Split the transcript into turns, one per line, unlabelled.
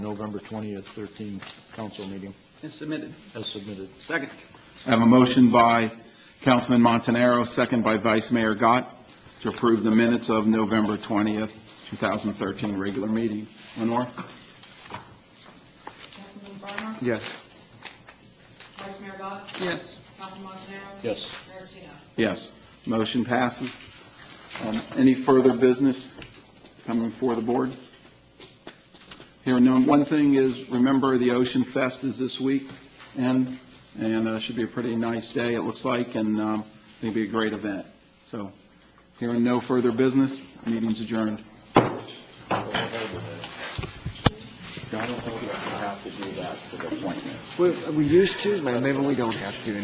November 20th, 13th council meeting
It's submitted.
as submitted.
Second.
I have a motion by Councilman Montanaro, second by Vice Mayor Gott, to approve the minutes of November 20th, 2013, regular meeting. Lenore?
Councilman Breimer?
Yes.
Vice Mayor Gott?
Yes.
Councilman Montanaro?
Yes.
Mayor Patino?
Yes. Motion passes. Um, Any further business coming before the board? Here, none. One thing is, remember, the Ocean Fest is this week, and, and uh, should be a pretty nice day, it looks like, and um, I think it'll be a great event. So, here, no further business, meeting's adjourned.
We, we used to, but maybe we don't have to